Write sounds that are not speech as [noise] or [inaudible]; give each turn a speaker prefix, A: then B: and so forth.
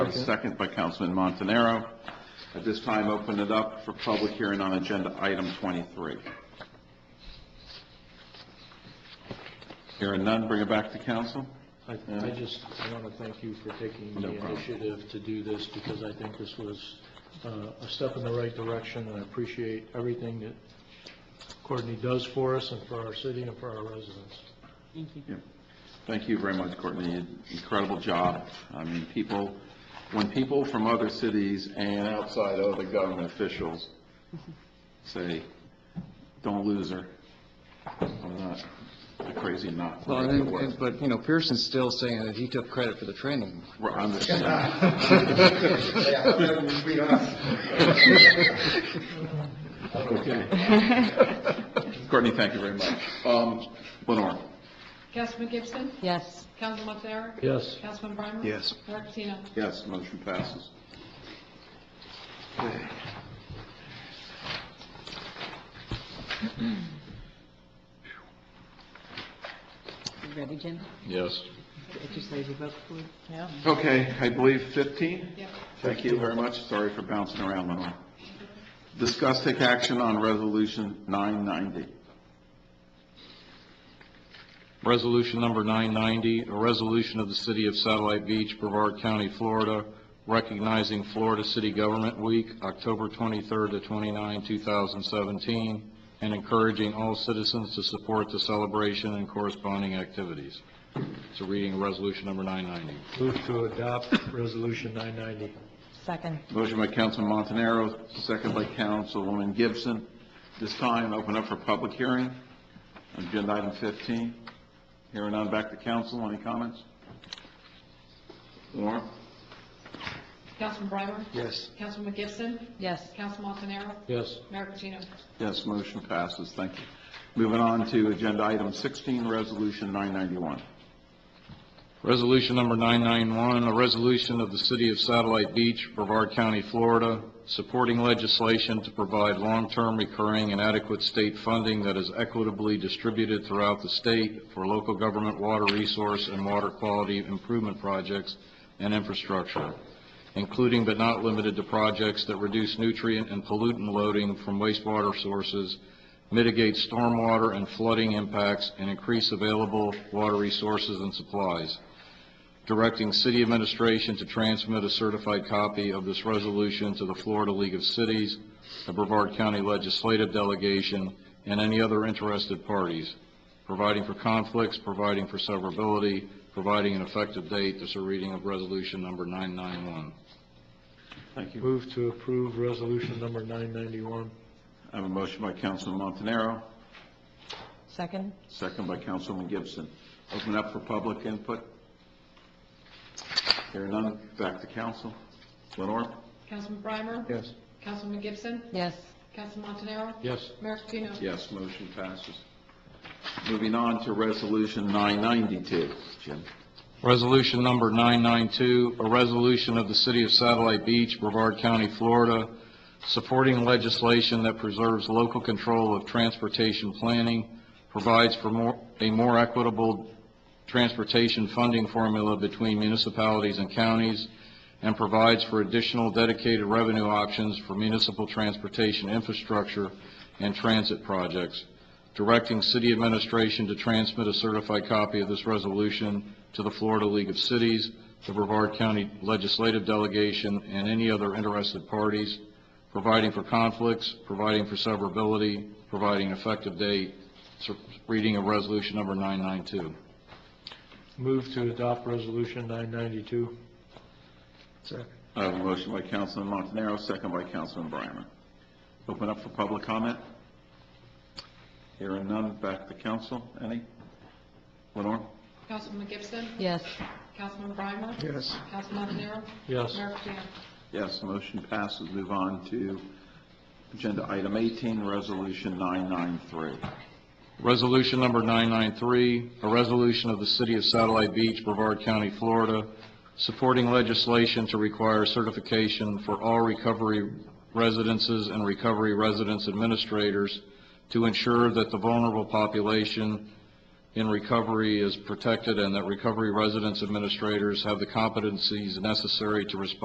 A: second by Councilman Montanaro. At this time, open it up for public hearing on agenda item 23. Hearing none, bring it back to council.
B: I, I just want to thank you for taking
A: No
B: the
A: problem.
B: initiative to do this, because I think this was uh, a step in the right direction, and I appreciate everything that Courtney does for us and for our city and for our residents.
A: Thank you very much, Courtney. You did an Incredible job. I mean, people, when people from other cities and outside other government officials say, "Don't lose her," I'm not a crazy not.
C: Well, and- and- but, you know, Pearson's still saying that he took credit for the training.
A: Right, I understand. [laughs] Okay. Courtney, thank you very much. Um, Lenore?
D: Councilman Gibson?
E: Yes.
D: Councilman Montanaro?
B: Yes.
D: Councilman Breimer?
C: Yes.
D: Mayor Patino?
A: Yes, motion passes. Okay.
E: You ready, Jim?
A: Yes.
E: Exercise your vote, please. Yeah.
A: Okay, I believe 15?
D: Yep.
A: Thank you very much. Sorry for bouncing around, Lenore. Discuss take action on Resolution 990.
F: Resolution number 990, a resolution of the City of Satellite Beach, Brevard County, Florida, recognizing Florida City Government Week, October 23rd to 29, 2017, and encouraging all citizens to support the celebration and corresponding activities. So reading resolution number 990.
B: Move to adopt Resolution 990.
E: Second.
A: Motion by Councilman Montanaro, second by Councilwoman Gibson. This time, open up for public hearing. Agenda item 15. Hearing none, back to council. Any comments? Lenore?
D: Councilman Breimer?
C: Yes.
D: Councilman Gibson?
E: Yes.
D: Councilman Montanaro?
B: Yes.
D: Mayor Patino?
A: Yes, motion passes. Thank you. Moving on to agenda item 16, Resolution 991.
F: Resolution number 991, a resolution of the City of Satellite Beach, Brevard County, Florida, supporting legislation to provide long-term recurring and adequate state funding that is equitably distributed throughout the state for local government water resource and water quality improvement projects and infrastructure, including but not limited to projects that reduce nutrient and pollutant loading from wastewater sources mitigate stormwater and flooding impacts, and increase available water resources and supplies. Directing city administration to transmit a certified copy of this resolution to the Florida League of Cities, the Brevard County Legislative Delegation, and any other interested parties, providing for conflicts, providing for severability, providing an effective date. This is a reading of resolution number 991.
A: Thank you.
B: Move to approve Resolution number 991.
A: I have a motion by Councilman Montanaro,
E: Second?
A: second by Councilwoman Gibson. Open up for public input. Hearing none, back to council. Lenore?
D: Councilman Breimer?
B: Yes.
D: Councilman Gibson?
E: Yes.
D: Councilman Montanaro?
B: Yes.
D: Mayor Patino?
A: Yes, motion passes. Moving on to Resolution 992. Jim?
F: Resolution number 992, a resolution of the City of Satellite Beach, Brevard County, Florida, supporting legislation that preserves local control of transportation planning, provides for more, a more equitable transportation funding formula between municipalities and counties, and provides for additional dedicated revenue options for municipal transportation infrastructure and transit projects, directing city administration to transmit a certified copy of this resolution to the Florida League of Cities, the Brevard County Legislative Delegation, and any other interested parties, providing for conflicts, providing for severability, providing effective date, So, reading of resolution number 992.
B: Move to adopt Resolution 992.
A: I have a motion by Councilman Montanaro, second by Councilman Breimer. Open up for public comment. Hearing none, back to council. Any? Lenore?
D: Councilman Gibson?
E: Yes.
D: Councilman Breimer?
C: Yes.
D: Councilman Montanaro?
B: Yes.
D: Mayor Patino?
A: Yes, motion passes. Move on to Agenda Item 18, Resolution 993.
F: Resolution number 993, a resolution of the City of Satellite Beach, Brevard County, Florida, supporting legislation to require certification for all recovery residences and recovery residence administrators to ensure that the vulnerable population in recovery is protected and that recovery residence administrators have the competencies necessary to respond